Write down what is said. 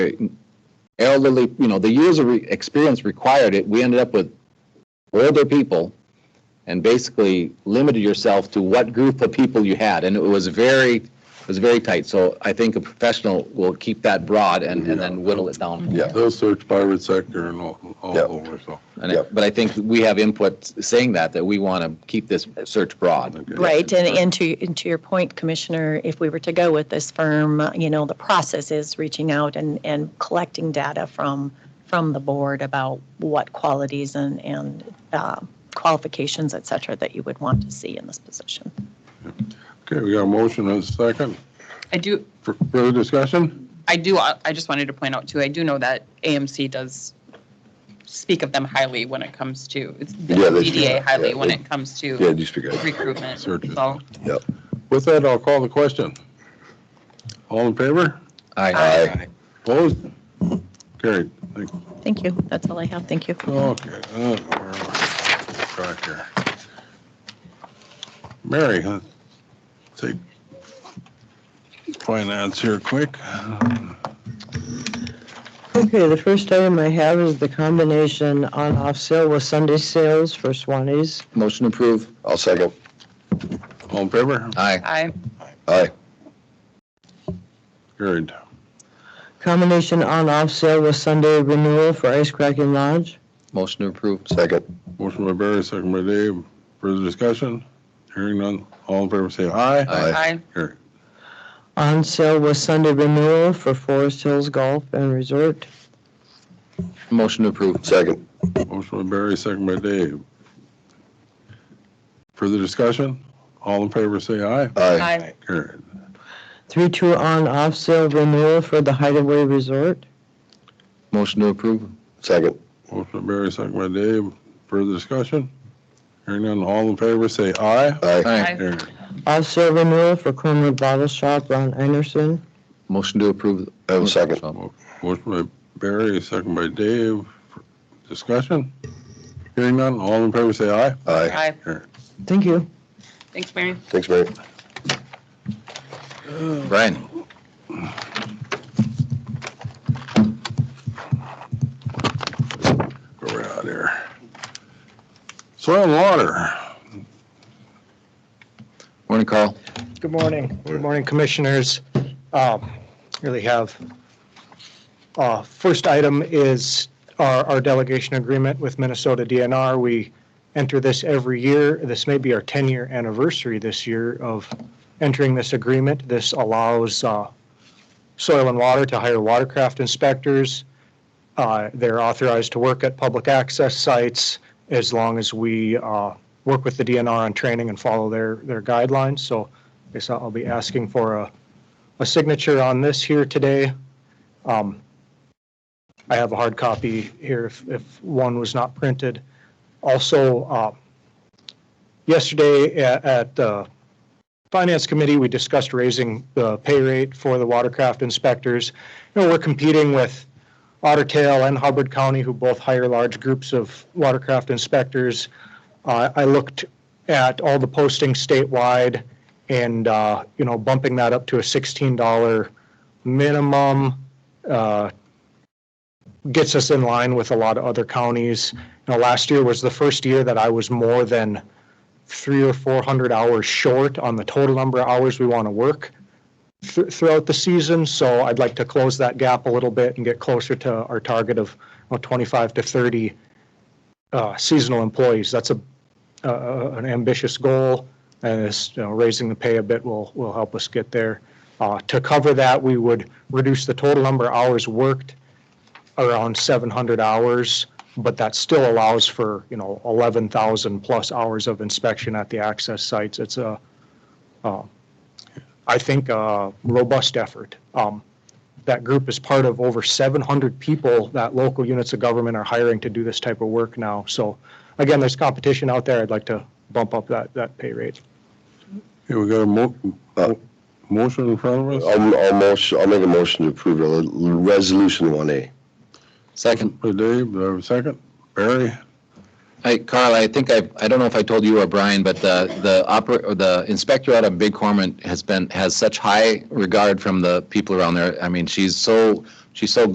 elderly, you know, the years of re- experience required it, we ended up with older people and basically limited yourself to what group of people you had. And it was very, it was very tight. So I think a professional will keep that broad and, and then whittle it down. Yeah. They'll search private sector and all, all Yeah. over, so. And I- But I think we have input saying that, that we want to keep this search broad. okay. Right, and, and to, and to your point, Commissioner, if we were to go with this firm, you know, the process is reaching out and, and collecting data from, from the board about what qualities and, and uh, qualifications, et cetera, that you would want to see in this position. Okay, we got a motion and a second. I do, F- Further discussion? I do, I I just wanted to point out too, I do know that AMC does speak of them highly when it comes to, it's the Yeah, they do. PDA highly Yeah, when they- it comes Yeah, to just figure it recruitment. Searches. So, With that, I'll call the question. All in favor? I Aye. Opposed? Carried. Thank you. Thank you, that's all I have, thank you. Okay. uh, where am I? Back here. Mary, huh? Take finance here quick. Okay, the first item I have is the combination on-off sale with Sunday sales for Swanee's. Motion approved. I'll second. All in favor? Aye. I, Aye. Carried. Combination on-off sale with Sunday renewal for Ice Cracking Lodge. Motion approved. Second. Motion by Barry, second by Dave. Further discussion? Hearing none. All in favor, say aye. Aye. I, Carried. On sale with Sunday renewal for Forest Hills Golf and Resort. Motion approved. Second. Motion by Barry, second by Dave. Further discussion? All in favor, say aye. Aye. I, Carried. Three-two on-off sale renewal for the Hideaway Resort. Motion approved. Second. Motion by Barry, second by Dave. Further discussion? Hearing none. All in favor, say aye. Aye. Aye. I, Carried. Off sale renewal for Cornwood Bottle Shop, Ron Anderson. Motion to approve. I will second. Motion by Barry, second by Dave. Discussion? Hearing none. All in favor, say aye. Aye. I, Thank you. thanks, Mary. Thanks, Mary. Brian. Go right out here. Soil and water. Morning, Carl. Good morning. Good morning, Commissioners. Um, Really have, uh, first item is our our delegation agreement with Minnesota DNR. We enter this every year. This may be our 10-year anniversary this year of entering this agreement. This allows uh, Soil and Water to hire watercraft inspectors. Uh, They're authorized to work at public access sites as long as we uh, work with the DNR on training and follow their their guidelines. So Guess I'll be asking for a, a signature on this here today. Um, I have a hard copy here if, if one was not printed. Also, uh, yesterday at, at the Finance Committee, we discussed raising the pay rate for the watercraft inspectors. You know, we're competing with Otter Tail and Hubbard County, who both hire large groups of watercraft inspectors. Uh, I looked at all the postings statewide and, uh, you know, bumping that up to a $16 minimum uh, gets us in line with a lot of other counties. You know, last year was the first year that I was more than three or 400 hours short on the total number of hours we want to work thr- throughout the season. So I'd like to close that gap a little bit and get closer to our target of you know, 25 to 30 uh, seasonal employees. That's a, uh, an ambitious goal and this, you know, raising the pay a bit will, will help us get there. Uh, to cover that, we would reduce the total number of hours worked around seven hundred hours, but that still allows for, you know, eleven thousand plus hours of inspection at the access sites. It's a, uh, I think, a robust effort. Um, that group is part of over seven hundred people that local units of government are hiring to do this type of work now. So again, there's competition out there. I'd like to bump up that, that pay rate. Here we got a mo- Uh, motion in front of us. I'll, I'll motion, I'll make a motion to approve the l- resolution 1A. Second. By Dave, do I have a second? Barry? Hey, Carl, I think I, I don't know if I told you or Brian, but the, the oper, or the inspector out of Big Cormorant has been, has such high regard from the people around there. I mean, she's so, she's so